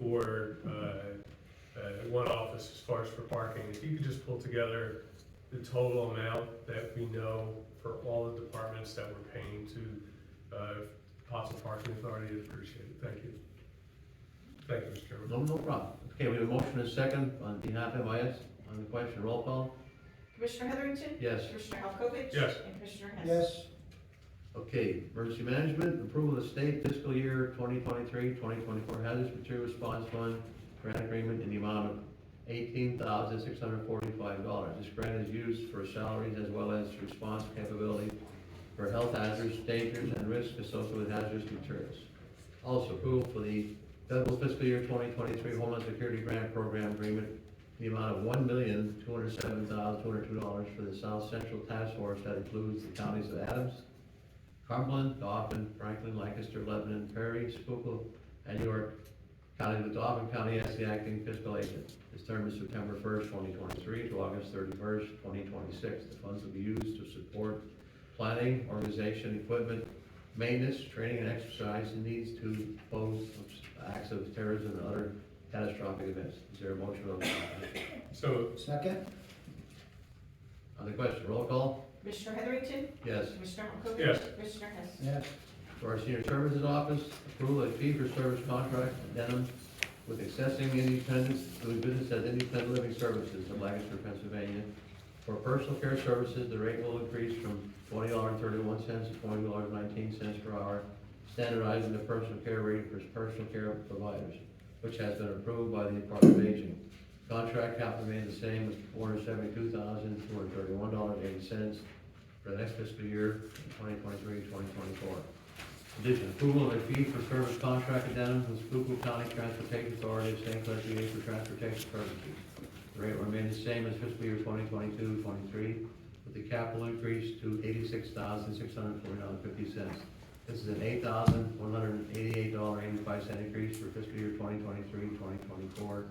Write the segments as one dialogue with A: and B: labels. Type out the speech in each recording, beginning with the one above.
A: for, uh, uh, one office as far as for parking, if you could just pull together the total amount that we know for all the departments that we're paying to, uh, Possum Parking Authority, I'd appreciate it, thank you. Thank you, Mr. Chairman.
B: No, no problem. Okay, we have a motion and a second on behalf of MIS on the question, roll call?
C: Commissioner Heatherington?
B: Yes.
C: Commissioner Halkovich?
A: Yes.
C: And Commissioner Hess?
D: yes,
B: Okay, emergency management, approval of the state fiscal year 2023, 2024 hazardous material response fund grant agreement in the amount of $18,645. This grant is used for salaries as well as response capability for health hazards, dangers, and risks associated with hazardous materials. Also approved for the federal fiscal year 2023 Homeland Security Grant Program Agreement in the amount of one million, two hundred seven thousand, two hundred two dollars for the South Central Task Force that includes the counties of Adams, Cumberland, Dauphin, Franklin, Lancaster, Lebanon, Perry, Schuylkill, and York County, with Dauphin County as the acting fiscal agent. His term is September first, twenty twenty-three to August thirty-first, twenty twenty-six. The funds will be used to support planning, organization, equipment, maintenance, training, and exercise needs to pose acts of terrorism and other catastrophic events. Is there a motion on the,
A: So,
D: second,
B: on the question? Roll call?
C: Commissioner Heatherington?
B: Yes.
C: Commissioner Halkovich?
A: Yes.
C: Commissioner Hess?
D: yes,
B: For our senior services office, approval of fee-for-service contract addendum with accessing independence, doing business as independent living services in Lancaster, Pennsylvania. For personal care services, the rate will increase from twenty dollars and thirty-one cents to twenty dollars and nineteen cents per hour, standardizing the personal care rate for personal care providers, which has been approved by the Department of Aging. Contract cap remains the same, with four hundred seventy-two thousand, two hundred thirty-one dollars and eighty cents for the next fiscal year, 2023-2024. Addition, approval of a fee for service contract addendum with Schuylkill County Transportation Authority of St. Clair PA for transportation services. The rate will remain the same as fiscal year 2022-23, with the capital increase to eighty-six thousand, six hundred and forty dollars, fifty cents. This is an eight thousand, one hundred and eighty-eight dollar, eighty-five cent increase for fiscal year 2023-2024.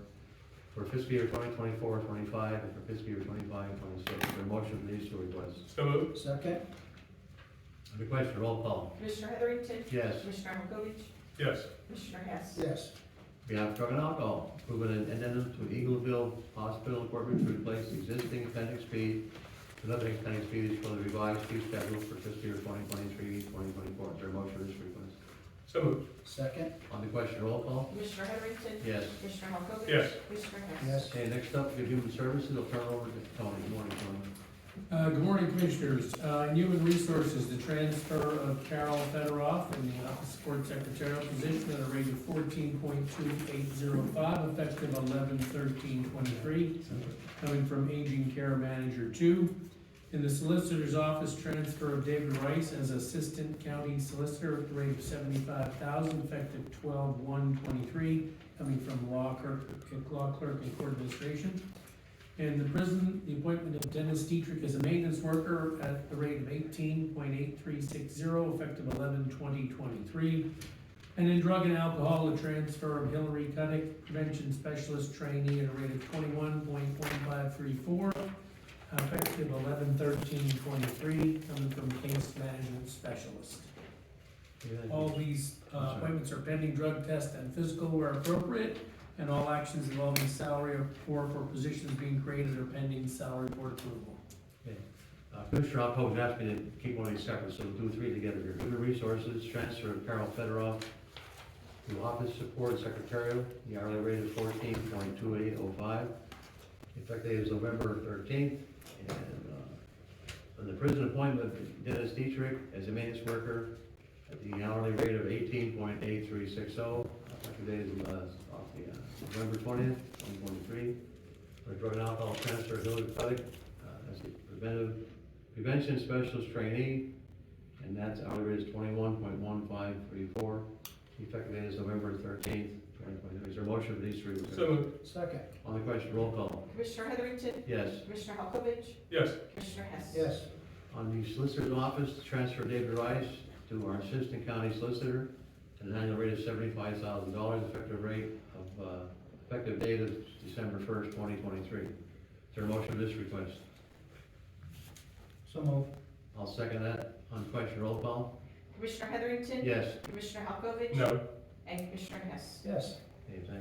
B: for fiscal year 2024-25, and for fiscal year 25-26. The motion for these two requests.
A: so moved,
D: second,
B: On the question, roll call.
C: Commissioner Heatherington?
B: Yes.
C: Commissioner Halkovich?
A: yes,
C: Commissioner Hess?
D: yes,
B: We have drug and alcohol, approval and addendum to Eagleville Hospital Corporate to replace the existing appendix B. Another appendix B is for the revised fee schedule for fiscal year 2023-2024. Is there a motion for this request?
A: so moved,
D: second,
B: On the question, roll call.
C: Commissioner Heatherington?
B: Yes.
C: Commissioner Halkovich?
A: Yes.
C: Commissioner Hess?
D: yes,
B: Okay, next up, we have human services. I'll turn it over to Tony. Good morning, Tony.
E: Uh, Good morning, Commissioners. Uh, In Human Resources, the transfer of Carol Federoff in the Office Support Secretarial position at a rate of fourteen point two eight zero five, effective eleven thirteen twenty-three, coming from Aging Care Manager Two. In the Solicitor's Office, transfer of David Rice as Assistant County Solicitor at the rate of seventy-five thousand, effective twelve one twenty-three, coming from Law Clerk, Law Clerk and Court Administration. In the prison, the appointment of Dennis Dietrich as a maintenance worker at the rate of eighteen point eight three six zero, effective eleven twenty twenty-three. And in drug and alcohol, the transfer of Hillary Cuddick, prevention specialist trainee at a rate of twenty-one point one five three four, effective eleven thirteen twenty-three, coming from case management specialist. All these uh, appointments are pending drug test and physical where appropriate, and all actions involving salary or for positions being created are pending salary board approval.
B: Uh, Commissioner Alcoa has asked me to keep one of these separate, so we'll do three together here. Human Resources, transfer of Carol Federoff to Office Support Secretarial, the hourly rate is fourteen point two eight oh five. Effective date is November thirteenth, and, uh, on the prison appointment, Dennis Dietrich as a maintenance worker at the hourly rate of eighteen point eight three six oh. Effective date is, uh, off the, uh, November twentieth, twenty twenty-three. For drug and alcohol transfer, Hillary Cuddick, uh, as the preventive prevention specialist trainee, and that's hourly rate is twenty-one point one five three four. Effective date is November thirteenth, twenty twenty-three. Is there a motion for these three? requests?
A: so moved,
D: second,
B: On the question, roll call.
C: Commissioner Heatherington?
B: Yes.
C: Commissioner Halkovich?
A: yes,
C: Commissioner Hess?
D: yes,
B: On the solicitor's office, transfer David Rice to our assistant county solicitor at an annual rate of seventy-five thousand dollars, effective rate of, uh, effective date of December first, twenty twenty-three. Is there a motion for this request?
D: so moved,
B: I'll second that. On the question, roll call.
C: Commissioner Heatherington?
B: Yes.
C: Commissioner Halkovich?
A: no,
C: And Commissioner Hess?
D: yes,
B: Okay, thank